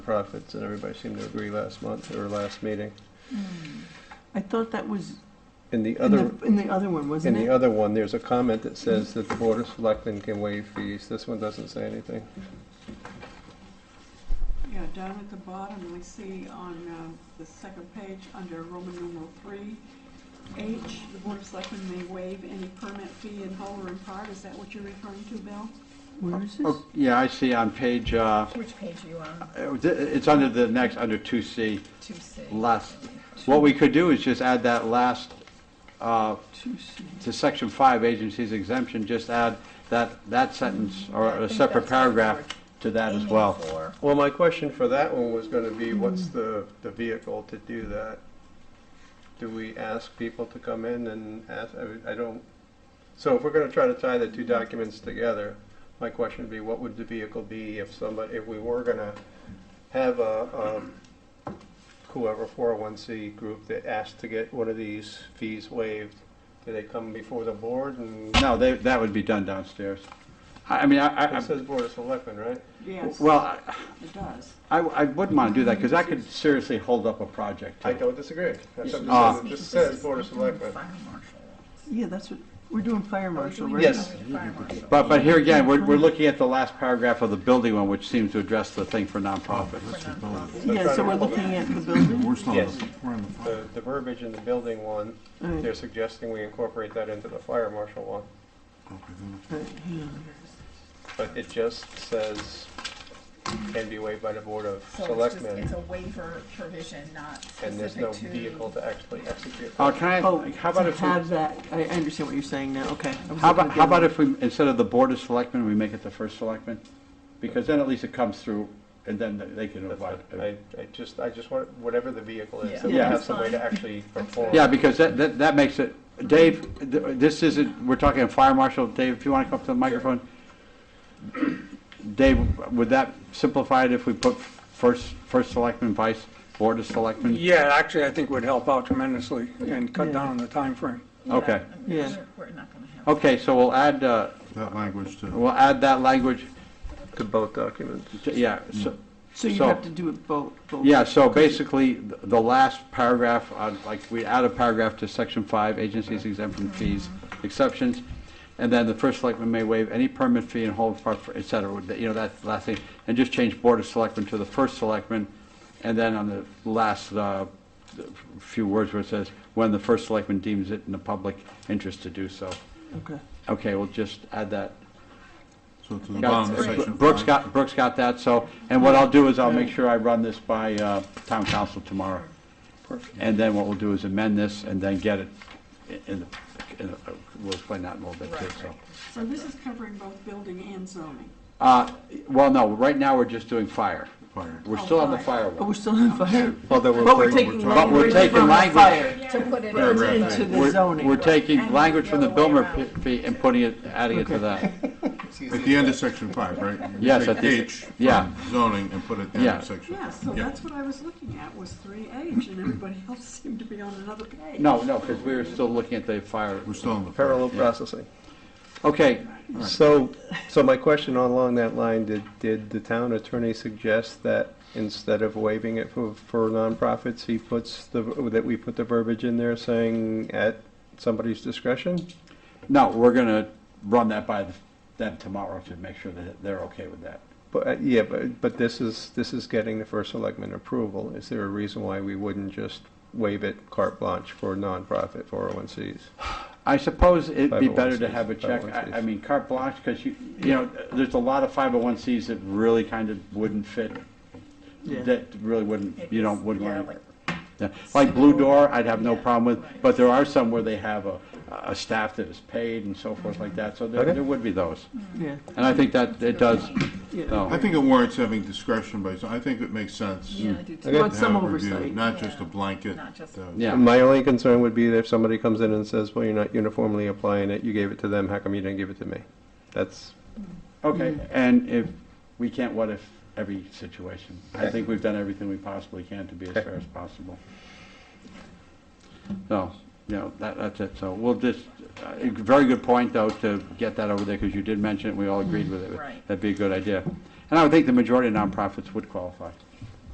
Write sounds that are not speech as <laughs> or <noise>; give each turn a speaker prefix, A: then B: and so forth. A: profits that everybody seemed to agree last month or last meeting.
B: Hmm.
C: I thought that was
A: In the
C: in
A: other,
C: the, in the other
A: in
C: one, Mm-hmm. wasn't
A: the
C: it?
A: other one, there's a comment that says that the Board of Selectmen can waive fees. This one doesn't say anything.
D: Yeah, down at the bottom, we see on uh, the second page, under Roman numeral three, H, the Board of Selectmen may waive any permit fee in whole or in part. Is that what you're referring to, Bill?
C: Where is this?
E: Oh, Yeah, I see on page, uh,
B: Which page are you on?
E: it- it's under the next, under 2C,
B: Two C.
E: last. What we could do is just add that last, uh,
C: Two C.
E: to section 5, agencies exemption, just add that, that sentence or
B: I
E: a
B: think
E: separate
B: that's what we were
E: paragraph to that as
B: aiming
E: well.
B: for.
A: Well, my question for that one was gonna be, what's the, the vehicle to do that? Do we ask people to come in and ask, I- I don't, so if we're gonna try to tie the two documents together, my question would be, what would the vehicle be if somebody, if we were gonna have a, um, whoever, four oh one C group that asked to get one of these fees waived? Do they come before the board and,
E: No, they- that would be done downstairs. I I mean, I, I-
A: it says Board of Selectmen, right?
D: Yes,
E: well, I-
D: it does.
E: I I wouldn't want to do that because that could seriously hold up a project. too.
A: I don't disagree. That's what
E: Ah.
A: I'm saying. It just says Board of Selectmen.
B: Fire marshal.
C: Yeah, that's what, we're doing fire marshal, right?
A: Yes.
B: Fire marshal.
E: But, but here again, we're, we're looking at the last paragraph of the building one, which seems to address the thing for nonprofits.
C: Yeah, so we're looking at the building.
F: We're still,
A: Yes.
F: we're on the phone.
A: The, the verbiage in the building one,
C: Right.
A: they're suggesting we incorporate that into the fire marshal one,
F: Okay, then let's-
C: Right, hang on.
A: but it just says can be waived by the board of
B: So it's just, it's
A: selectmen,
B: a waiver provision, not
A: and there's no
B: specific to.
A: vehicle to actually execute.
E: Uh, can
C: Oh,
E: I, how about
C: to
E: if, we-
C: have that, I I understand what you're saying now, okay. I was
E: how
C: looking
E: about,
C: at
E: how
C: the
E: about
C: other
E: if we, instead of the board of selectmen, we make it the first selectman? Because then at least it comes through, and then they can
A: That's
E: avoid.
A: what- I, I just, I just want, whatever the vehicle is,
B: Yeah.
A: that we
E: Yeah.
A: have
B: That's
A: some way to
B: fine.
A: actually perform.
E: Yeah, because that, that, that makes it, Dave, th- this isn't, we're talking fire marshal, Dave, if you want to come up to the microphone. Dave, would that simplify it if we put first, first selectman, vice, board of selectmen?
G: Yeah, actually, I think would help out tremendously and cut
C: Yeah.
G: down on the time frame.
B: Yeah,
E: Okay.
B: I mean,
C: Yeah.
B: we're- We're not gonna have.
E: Okay, so we'll add, uh,
F: That language to,
E: we'll add that language,
A: To both documents.
E: yeah, so,
C: So you
E: so-
C: have to do it both, both.
E: Yeah, so basically, th- the last paragraph, uh, like, we add a paragraph to section five, agencies exempt from fees, exceptions, and then the first selectman may waive any permit fee and hold, for- for- et cetera, with the- you know, that last thing, and just change board of selectmen to the first selectman, and then on the last uh, few words where it says, when the first selectman deems it in the public interest to do so.
C: Okay.
E: Okay, we'll just add that.
F: so to the
E: Got-
F: bottom of
E: Br-
F: section
E: Brooks
F: five.
E: got, Brooks got that, so, and what I'll do is I'll make sure I run this by uh, town council tomorrow. And then what we'll do is amend this and then get it in, the- in the- we'll explain that in a little bit too,
B: Right,
E: so.
B: right.
D: So this is covering both building and zoning.
E: Uh, Well, no, right now we're just doing fire.
F: Fire.
E: We're still on the fire
C: But
E: one.
C: we're still on fire.
E: Although
C: But we're taking
E: But we're
C: language
E: taking
C: from the
E: language-
C: fire
B: To put it
F: Right,
B: into
F: right,
C: into
B: the.
C: the zoning.
E: We're taking
B: And
E: language from the
B: the other way
E: Bilmer
B: around.
E: fee and putting it, adding it to that.
F: At the end of section five, right? You
E: Yes,
F: take
E: at the-
F: H from
E: yeah.
F: Zoning and put it down
E: Yeah.
F: in section.
D: Yeah, so that's what I was looking at, was three H, and everybody <laughs> else seemed to be on another page.
E: No, no, because we were still looking at the fire.
F: We're still on the. fire.
A: Parallel processing.
E: Okay,
A: So, so my question along that line, did, did the town attorney suggest that instead of waiving it for, for nonprofits, he puts the, that we put the verbiage in there saying at somebody's discretion?
E: no, we're going to run that by the- them tomorrow to make sure that they're okay with that.
A: But, uh, yeah, but, but this is, this is getting the first selectman approval. Is there a reason why we wouldn't just waive it carte blanche for nonprofit 401Cs?
E: I suppose it'd
F: oh
E: be better to
A: 501Cs,
E: have a check, I, I
A: 501Cs.
E: mean, carte blanche, because you, you know, there's a lot of 501Cs that really kind of wouldn't fit,
C: Yeah.
E: that really wouldn't, you know,
B: It's-
E: wouldn't
B: yeah,
E: want,
B: like-
E: yeah. like Blue Door, I'd have no
B: Yeah,
E: problem with,
B: right.
E: but there are some where they have a, a staff that is paid and so forth like that, so there,
A: Okay.
E: there would be those.
C: Yeah,
E: And I think that it does,
C: yeah.
E: though.
F: I think it warrants having discretion, but I think it makes sense.
B: Yeah,
E: Hmm.
B: I do too.
F: to
C: Well, it's some
F: have a review,
C: oversight.
F: Not just a
B: Yeah.
F: blanket.
B: Not just-
F: uh,
E: yeah.
A: My only concern would be that if somebody comes in and says, well, you're not uniformly applying it, you gave it to them, how come you didn't give it to me? That's,
E: Okay, and if, we can't what if every situation. I think we've done everything we possibly can to be as
A: Okay.
E: fair as possible. So, you know, that, that's it, so we'll just, uh, a very good point, though, to get that over there, because you did mention it, we all agreed with it.
B: Right.
E: That'd be a good idea. And I would think the majority of nonprofits would qualify.